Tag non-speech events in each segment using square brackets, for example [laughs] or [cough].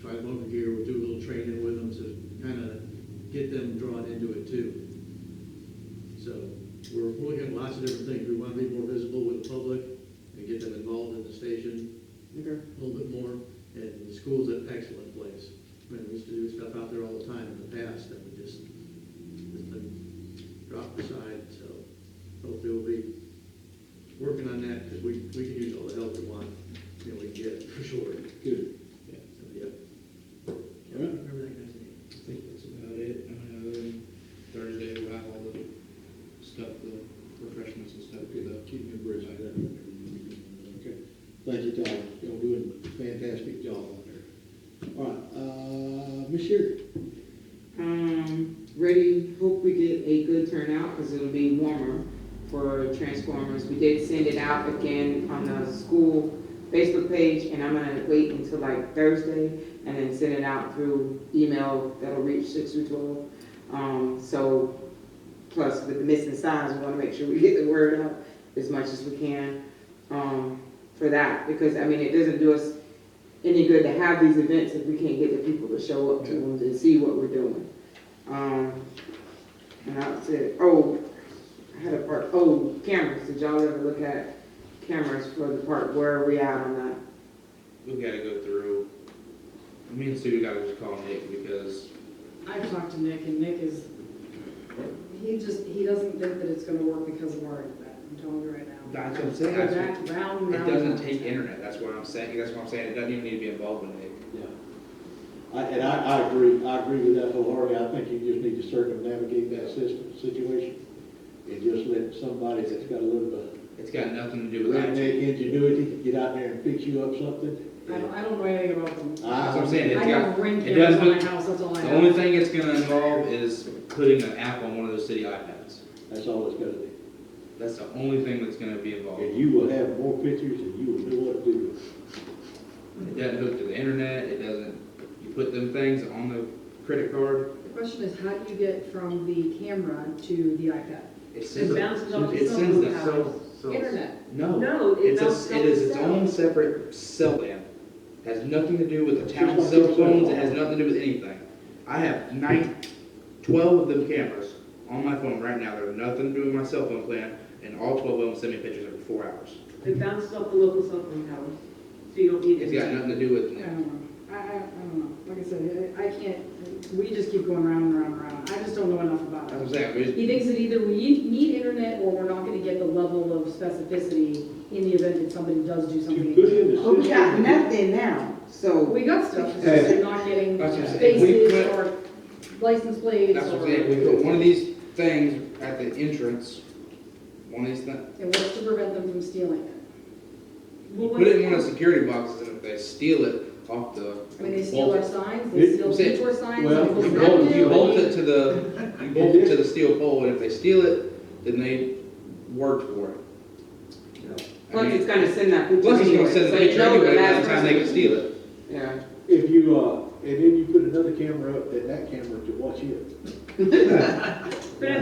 try them over here, we'll do a little training with them to kind of get them drawn into it too. So we're looking at lots of different things. We want to be more visible with the public and get them involved in the station Okay. a little bit more. And the school's an excellent place. I mean, we used to do stuff out there all the time in the past and we just, it's been dropped aside, so hopefully we'll be working on that because we, we can use all the help we want, you know, we can get for sure. Good. Yeah, so, yeah. All right. Everything I said. I think that's about it. Uh, Thursday, we'll have all the stuff, the refreshments and stuff. Keep me abreast of that. Okay. Thank you, Tom. Y'all doing a fantastic job out there. All right, uh, Ms. Sherry? Um, ready, hope we get a good turnout, because it'll be warmer for Transformers. We did send it out again on the school Facebook page, and I'm gonna wait until like Thursday, and then send it out through email that'll reach six through twelve. Um, so, plus with the missing signs, we wanna make sure we get the word out as much as we can, um, for that, because, I mean, it doesn't do us any good to have these events if we can't get the people to show up to them and see what we're doing. Um, and I said, oh, I had a part, oh, cameras, did y'all ever look at cameras for the park, where are we at on that? we gotta go through, me and Sue gotta just call Nick because I talked to Nick, and Nick is, he just, he doesn't think that it's gonna work because of our event, I'm telling you right now. That's what I'm saying. Go back, round, round. it doesn't round. take internet, that's what I'm saying, that's what I'm saying, it doesn't even need to be involved with Nick. Yeah. I, and I, I agree, I agree with that wholeheartedly. I think you just need to circumnavigate that system, situation. And just let somebody that's got a little bit It's got nothing to do of with that. redneck ingenuity get out there and fix you up something. I don't, I don't know anything about them. That's what I'm saying, I it's got got, ring Uh, it cameras on my doesn't- house, that's all I the have. only thing it's gonna involve is putting an app on one of those city iPads. That's all it's gonna be. That's the only thing that's gonna be involved. And It you will have more pictures and you will know what to do. doesn't hook to the internet, it doesn't, you put them things on the credit card, The question is, how do you get from the camera to the iPad? it It sends, it bounces off the it cell sends phone the tower. cell, Internet. no, No, it it's bounces a, off it the is its cell. own separate cell app. Has nothing to do with the town cell phones, it has nothing to do with anything. I have nine, twelve of them cameras on my phone right now, that have nothing to do with my cell phone plan, and all twelve of them send me pictures every four hours. It bounces off the local cell phone tower, so you don't need It's got it. nothing to do with I it. don't know, I, I, I don't know, like I said, I I can't, we just keep going round and round and round, I just don't know enough about That's it. what I'm saying, we just- He thinks that either we need internet or we're not gonna get the level of specificity in the event that somebody does do To put something. in the Oh, we got system, nothing now, so, We got stuff, it's just they're not getting That's what I'm saying. We spaces put- or license plates that's what I'm or. saying, we put one of these things at the entrance, one of these things, And what's to prevent them from stealing it? put it in one of the security boxes, and if they steal it off the. I mean, they steal our bolt- signs, they steal I'm saying- detour signs. well, they you You steal bolt, you revenue, bolt they- it to the, you bolt it to the steel pole, and if they steal it, then they worked for it. You know, I plus mean, it's gonna send that picture Plus, it's gonna anyway, send so the you picture know the anyway, by last the time they can person. steal it. Yeah, if you, uh, and then you put another camera up, then that camera to watch it. [laughs] But I [laughs] mean,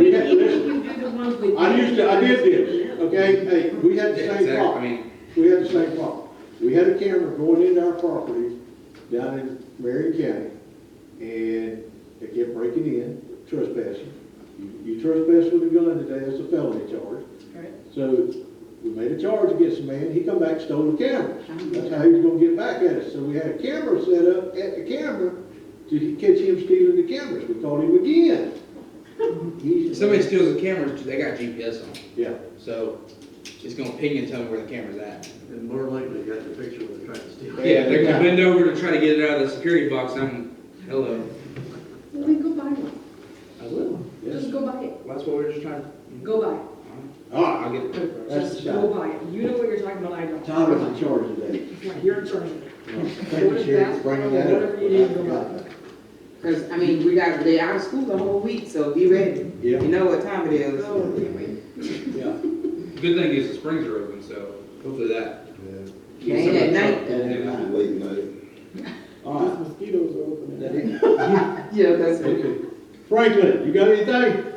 even if you do the ones with. I used to, I did this, okay, hey, we had the Yeah, same exactly, I problem, mean, we had the same problem. We had a camera going into our property down in Marion County, and they kept breaking in, trespassing. You- You trespass with a gun today, that's a felony charge. Right. So we made a charge against the man, he come back, stole the cameras. That's how he was gonna get back at us. So we had a camera set up at the camera to catch him stealing the cameras. We caught him again. He- if somebody steals the cameras, they got GPS on them, Yeah, so it's gonna ping and tell me where the camera's at. And more likely, you got the picture when they're trying to steal. Yeah, Yeah, they're yeah. gonna bend over to try to get it out of the security box, I'm, hello. Well, then go buy one, I will. just yes. go buy it, That's what we're just trying, go buy it, All right, I'll get it. That's just the go shot. buy it, you know what you're talking about, I don't. Todd was in charge of that. It's not your turn. Thank you, Sherry, for bringing that up. Whatever you need to go I up. forgot. cause, I mean, we got, they out of school the whole week, so be ready, Yeah, you know what time it is. Oh, can't wait. yeah. Good thing is the springs are open, so hopefully that. It ain't at night, though. Late night. All right. yeah, that's it. Okay. Franklin, you got anything?